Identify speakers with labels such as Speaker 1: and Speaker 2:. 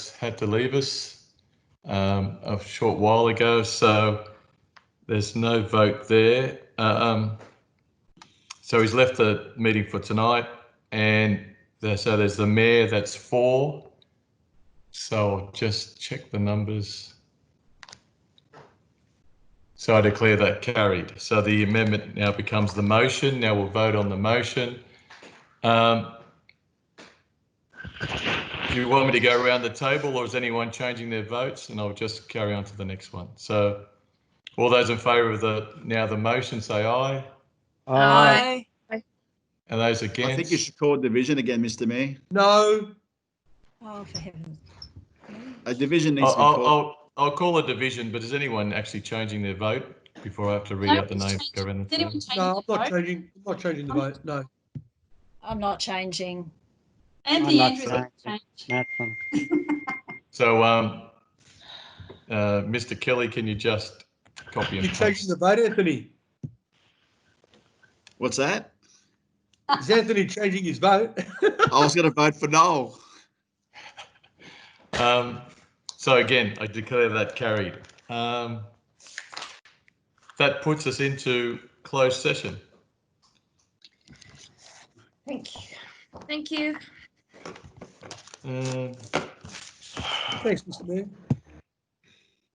Speaker 1: had to leave us um, a short while ago, so there's no vote there. Um, so he's left the meeting for tonight, and there, so there's the mayor, that's four. So I'll just check the numbers. So I declare that carried. So the amendment now becomes the motion. Now we'll vote on the motion. Um, do you want me to go around the table or is anyone changing their votes? And I'll just carry on to the next one. So all those in favour of the, now the motion, say aye.
Speaker 2: Aye.
Speaker 1: And those against?
Speaker 3: I think you should call division again, Mr. May.
Speaker 2: No.
Speaker 4: Oh, for heaven's
Speaker 3: A division needs
Speaker 1: I'll,
Speaker 3: to be
Speaker 1: I'll,
Speaker 3: called.
Speaker 1: I'll, I'll call a division, but is anyone actually changing their vote before I have to read out the names? Go around the
Speaker 5: Did anyone
Speaker 1: table?
Speaker 5: change
Speaker 2: No, I'm
Speaker 5: their
Speaker 2: not
Speaker 5: vote?
Speaker 2: changing. I'm not changing the vote. No.
Speaker 4: I'm not changing.
Speaker 5: Anthony
Speaker 6: I'm not
Speaker 5: Andrews has changed.
Speaker 6: Nothing.
Speaker 1: So, um, uh, Mr. Kelly, can you just copy and
Speaker 2: You're
Speaker 1: paste?
Speaker 2: changing the vote, Anthony.
Speaker 3: What's that?
Speaker 2: Is Anthony changing his vote?
Speaker 3: I was going to vote for no.
Speaker 1: Um, so again, I declare that carried. Um, that puts us into closed session.
Speaker 4: Thank you.
Speaker 5: Thank you.
Speaker 1: Um,
Speaker 2: Thanks, Mr. Mayor.